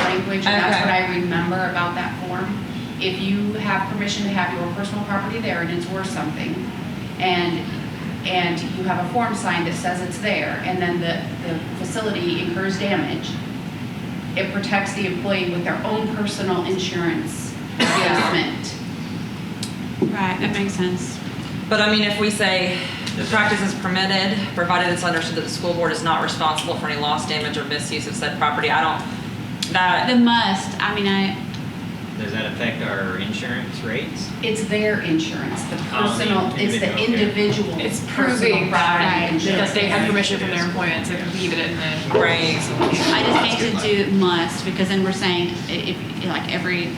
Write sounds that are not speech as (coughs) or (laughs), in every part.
language, that's Okay. what I remember about that form. If you have permission to have your personal property there and it's worth something, and, and you have a form signed that says it's there, and then the, the facility incurs damage, it protects the employee with their own personal insurance adjustment. Right, that makes sense. But I mean, if we say the practice is permitted, provided it's understood that the school board is not responsible for any loss, damage, or misuse of said property, I don't, The that, must, I mean, I, Does that affect our insurance rates? It's their insurance, the Oh, the personal, it's the individual, individual. It's personal proving property right, insurance. that they had permission from their employer to leave it in the. Right. I just hate to do must, because then we're saying i- if, like, every,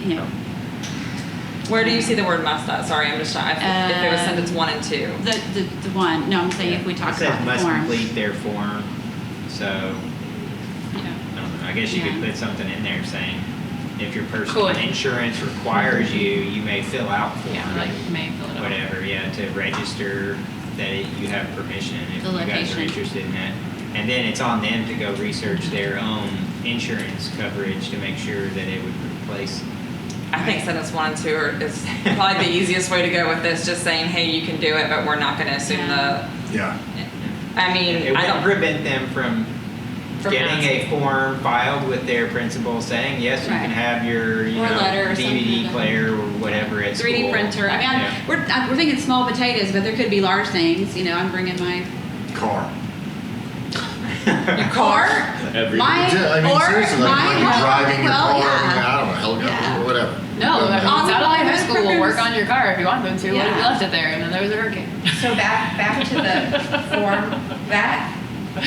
you know, where do you see the word must at? Sorry, I'm just, I- if it was Um, sentence one and two. the, the, the one, no, I'm saying if we talk It says about the must form. complete their form, so, Yeah. I don't know, I guess you could Yeah. put something in there saying, if your personal insurance requires you, you may fill out Yeah, form, like may fill it out. whatever, yeah, to register that it- you have permission, if The you guys are location. interested in that. And then it's on them to go research their own insurance coverage to make sure that it would replace I think sentence one and two are, is probably the easiest way to go with this, just saying, hey, you can do it, but we're not gonna assume the, Yeah. I It mean, I would don't, prevent them from From getting a form filed with their principal saying, yes, you can Right. have your, you Or know, letter or something like DVD that. player or whatever at school. 3D printer. I mean, I- Yeah. we're, I, we're thinking small potatoes, but there could be large things. You know, I'm bringing my Car. your (laughs) car? Every my Yeah, I mean, or seriously, my like, when you're home- driving your well, car, yeah. I mean, I don't know, helicopter, Yeah. or whatever. uh, No, Doesn't like, matter. All the satellite high bars school will work on your car if you want them to. What if you Yeah. left it there and then there was a hurricane? So back, back to the form, that,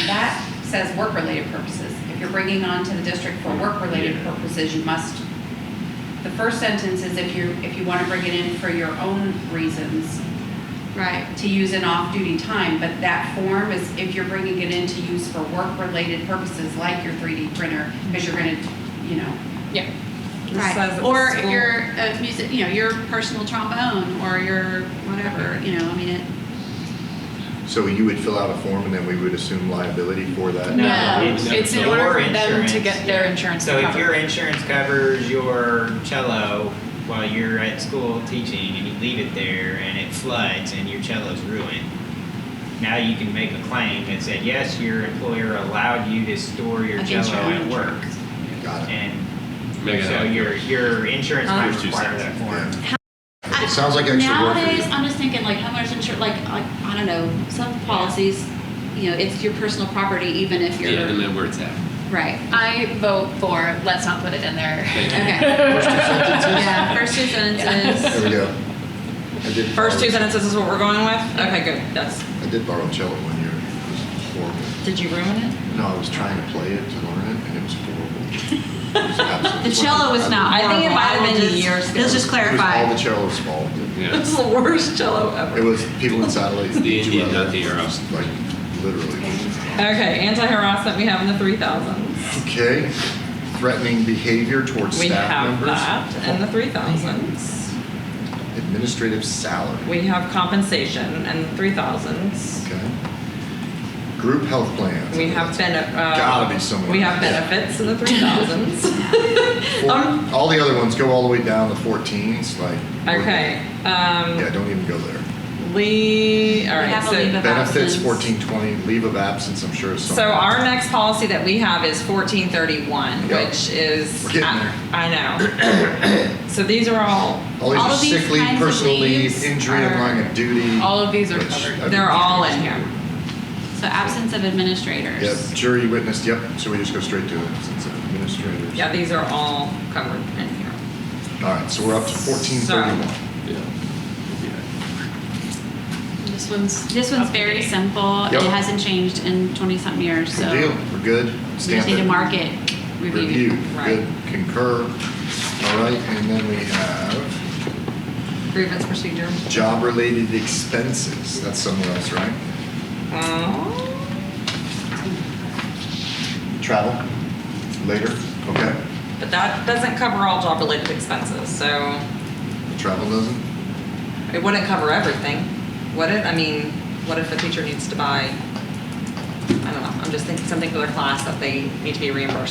that says work-related purposes. If you're bringing on to the district for work-related purposes, you must, the first sentence is if you, if you want to bring it in for your own reasons, right. to use in off-duty time, but that form is if you're bringing it in to use for work-related purposes, like your 3D printer, because you're going to, you know, Yeah. This says Right. that Or the school- your uh, music, you know, your personal trombone or your whatever. You know, I mean, it, So you would fill out a form and then we would assume liability for that? No. it's, It's in your order for them to insurance. get their insurance So if covered. your insurance covers your cello while you're at school teaching and you leave it there and it floods and your cello's ruined, now you can make a claim that said, yes, your employer allowed you to store your Like cello at insurance. work. Got it. And Make it so up. your, your insurance might Here's two require cents. that form. Yeah. I, It sounds like extra work. for nowadays. you. I'm just thinking like homeowners insurance. Like, like I don't know, some policies. You know, it's your personal property, even if you're Yeah, and then where it's at. right. I vote for let's not put it in there. (laughs) Okay. (laughs) First two sentences? yeah. First two sentences. There we go. I did First two borrow- sentences is what we're going with? Okay, good, that's, I did borrow a cello one year. It was horrible. did you ruin it? No, I was trying to play it to learn it and it was horrible. (laughs) It was absolutely- The cello was not. I think it horrible. might have will been the just- years ago. Let's just It was all clarify. the cello's fault. Yeah. It's (laughs) the worst cello ever. It was people in satellite. The Indian, Jewel- not the Arab. Like, literally. Okay, anti-harassment, we have in the three thousands. Okay, threatening behavior towards We staff have members. that in the three thousands. Administrative salary, We have compensation in the three thousands. okay. Group health plans. We have benefits. Gotta be somewhere. We have benefits in the three (laughs) thousands. Four- um, All the other ones go all the way down to fourteens, like. we're- Okay, um, Yeah, don't even go there. Lee, all We right, have a leave so. of Benefits, absence. fourteen twenty, leave of absence, I'm sure is something. So our next policy that we have is fourteen thirty-one, Yep. which is. We're getting I- there. I know. (coughs) So these are all, All these all are of these sick leave, kinds of personal leave, leaves injury and are- line of duty. All of these are which covered. I they're think- all in here. So absence of administrators. Yep, jury witness, yep, so we just go straight to absence of administrators. Yeah, these are all covered in here. All right, so we're up to fourteen thirty-one. Yeah. Yeah. This one's This one's very simple. Yep. It hasn't changed in 20 something years. Good So deal, we're good. we just Stamp need to it. mark it, review. Review, Right. good, concur. All right, and then we have Grievance procedure. job-related expenses. That's somewhere else, right? Oh, Travel, later, okay. But that doesn't cover all job-related expenses, so Travel doesn't? it wouldn't cover everything, would it? I mean, what if a teacher needs to buy, I don't know, I'm just thinking something for their class that they need to be reimbursed